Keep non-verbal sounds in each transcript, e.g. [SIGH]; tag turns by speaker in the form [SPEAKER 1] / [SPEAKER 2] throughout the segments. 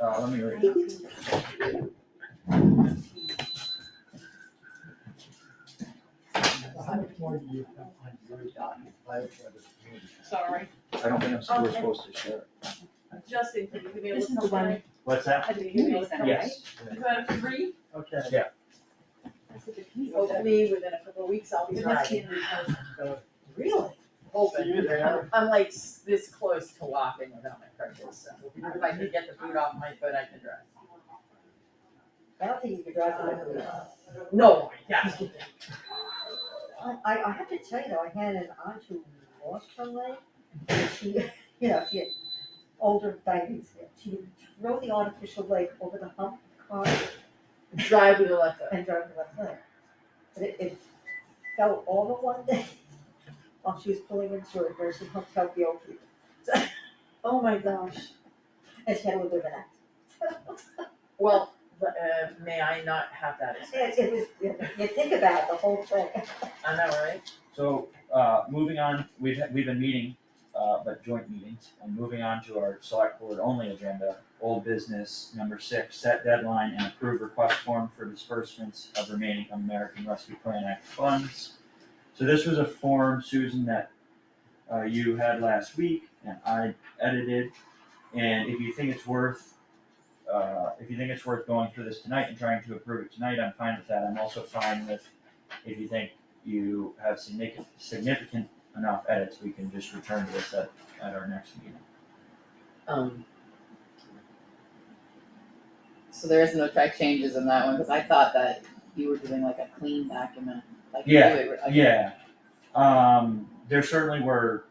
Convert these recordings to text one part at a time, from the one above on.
[SPEAKER 1] Uh, let me read it.
[SPEAKER 2] How much more do you have on your document?
[SPEAKER 3] Sorry,
[SPEAKER 1] I don't think I'm, we're supposed to share.
[SPEAKER 3] Justin, can you give me a
[SPEAKER 4] This
[SPEAKER 3] list
[SPEAKER 4] is
[SPEAKER 3] of
[SPEAKER 4] the one,
[SPEAKER 1] What's that?
[SPEAKER 4] I think you made some, right?
[SPEAKER 1] Yes.
[SPEAKER 3] Is that a three?
[SPEAKER 2] Okay.
[SPEAKER 4] This is the committee.
[SPEAKER 3] Hopefully, within a couple of weeks, I'll be
[SPEAKER 2] Right.
[SPEAKER 3] back in.
[SPEAKER 2] So, See
[SPEAKER 3] Really?
[SPEAKER 2] you
[SPEAKER 3] Hoping.
[SPEAKER 2] there.
[SPEAKER 3] I'm like s- this close to walking without my crutches, so if I can get the boot off my foot, I can drive.
[SPEAKER 5] I don't think you could drive it with
[SPEAKER 3] No, yes.
[SPEAKER 5] I, I, I have to tell you though, I had an aunt who lost her leg, and she, you know, she had older diabetes, she threw the artificial leg over the hump car
[SPEAKER 3] Drive with a left foot.
[SPEAKER 5] and drove her left leg. But it, it fell over one day [LAUGHS] while she was pulling into a nursing home to help the old people, [LAUGHS]
[SPEAKER 3] Oh, my gosh.
[SPEAKER 5] and she had a little bit of an
[SPEAKER 3] Well, but, uh, may I not have that
[SPEAKER 5] accident.
[SPEAKER 3] experience?
[SPEAKER 5] It, it was, you know, you think about it, the whole thing.
[SPEAKER 3] I know, right?
[SPEAKER 1] So, uh, moving on, we've, we've been meeting, uh, but joint meetings, and moving on to our select board only agenda, old business, number six, set deadline and approve request form for disbursements of remaining American Rescue Plan Act funds. So this was a form, Susan, that, uh, you had last week, and I edited, and if you think it's worth, uh, if you think it's worth going through this tonight and trying to approve it tonight, I'm fine with that, I'm also fine with, if you think you have significant, significant enough edits, we can just return to this at, at our next meeting.
[SPEAKER 6] Um. So there is no track changes in that one, cause I thought that you were doing like a clean document, like you do
[SPEAKER 1] Yeah,
[SPEAKER 6] it, like-
[SPEAKER 1] Uh, Yeah, um, there certainly were.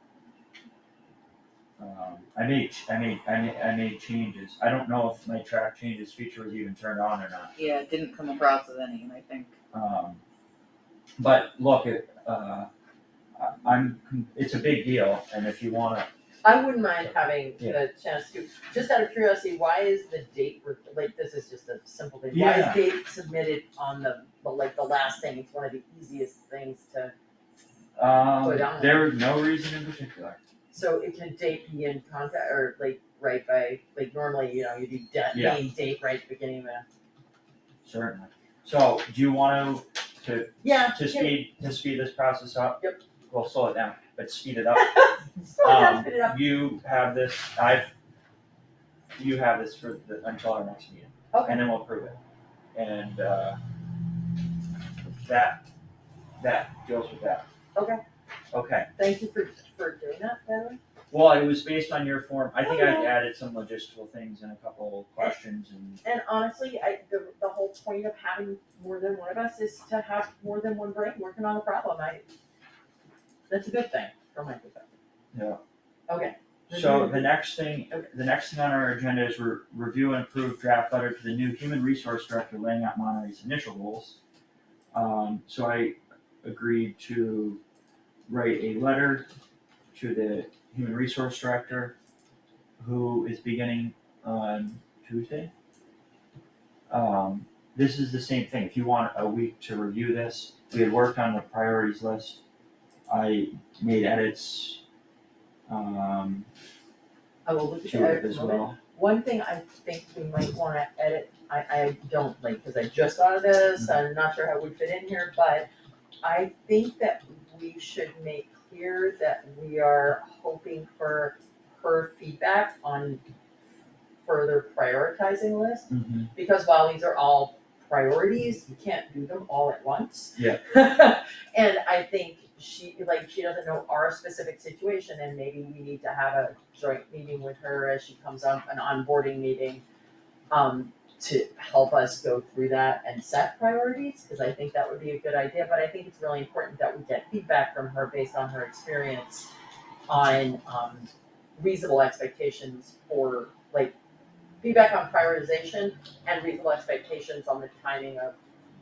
[SPEAKER 1] Um, I made, ch- I made, I made, I made changes, I don't know if my track changes feature was even turned on or not.
[SPEAKER 6] Yeah, it didn't come across as any, and I think,
[SPEAKER 1] Um, but look, it, uh, I- I'm, con- it's a big deal, and if you wanna,
[SPEAKER 3] I wouldn't mind having
[SPEAKER 1] Yeah.
[SPEAKER 3] the chance to, just out of curiosity, why is the date, re- like, this is just a simple thing, why
[SPEAKER 1] Yeah.
[SPEAKER 3] is date submitted on the, the, like, the last thing, it's one of the easiest things to,
[SPEAKER 1] um,
[SPEAKER 3] Put on.
[SPEAKER 1] there was no reason in particular.
[SPEAKER 3] so it can date be in contact, or like, right by, like, normally, you know, you do date,
[SPEAKER 1] Yeah.
[SPEAKER 3] name, date, right, at the beginning of the.
[SPEAKER 1] Certainly. So, do you wanna, to
[SPEAKER 3] Yeah.
[SPEAKER 1] to speed, to speed this process up.
[SPEAKER 3] Yep.
[SPEAKER 1] We'll slow it down, but speed
[SPEAKER 3] [LAUGHS]
[SPEAKER 1] it up.
[SPEAKER 3] So
[SPEAKER 1] Um,
[SPEAKER 3] that's it up.
[SPEAKER 1] You have this, I've, you have this for the, until our next meeting.
[SPEAKER 3] Okay.
[SPEAKER 1] And then we'll prove it. And, uh, that, that deals with that.
[SPEAKER 3] Okay.
[SPEAKER 1] Okay,
[SPEAKER 3] Thank you for, for doing that, by the way.
[SPEAKER 1] well, it was based on your form, I think I've
[SPEAKER 3] Okay.
[SPEAKER 1] added some logistical things and a couple questions and,
[SPEAKER 3] And honestly, I, the, the whole point of having more than one of us is to have more than one brain working on a problem, I, that's a good thing, from my perspective.
[SPEAKER 1] yeah.
[SPEAKER 3] Okay.
[SPEAKER 1] So the next thing, the next thing on our agenda is re- review and approve draft letter to the new human resource director laying out Monterey's initial goals. Um, so I agreed to write a letter to the human resource director who is beginning on Tuesday. Um, this is the same thing, if you want a week to review this, we had worked on the priorities list. I made edits, um,
[SPEAKER 3] I will look at
[SPEAKER 1] to it
[SPEAKER 3] it in
[SPEAKER 1] as
[SPEAKER 3] a moment.
[SPEAKER 1] well.
[SPEAKER 3] One thing I think we might wanna edit, I, I don't like, cause I just thought of this, I'm not sure how it would fit in here, but I think that we should make clear that we are hoping for her feedback on further prioritizing lists.
[SPEAKER 1] Mm-hmm.
[SPEAKER 3] because while these are all priorities, you can't do them all at once.
[SPEAKER 1] Yeah.
[SPEAKER 3] [LAUGHS] And I think she, like, she doesn't know our specific situation, and maybe we need to have a joint meeting with her as she comes up, an onboarding meeting, um, to help us go through that and set priorities, cause I think that would be a good idea, but I think it's really important that we get feedback from her based on her experience on, um, reasonable expectations for, like, feedback on prioritization and reasonable expectations on the timing of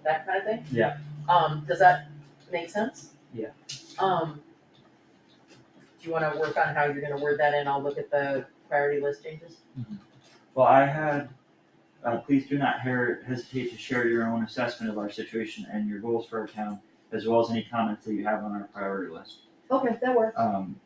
[SPEAKER 3] that kind of thing.
[SPEAKER 1] Yeah.
[SPEAKER 3] Um, does that make sense?
[SPEAKER 1] Yeah.
[SPEAKER 3] Um, do you wanna work on how you're gonna word that in, I'll look at the priority list changes?
[SPEAKER 1] Well, I had, uh, please do not her- hesitate to share your own assessment of our situation and your goals for our town, as well as any comments that you have on our priority list.
[SPEAKER 3] Okay, that works.
[SPEAKER 1] Um,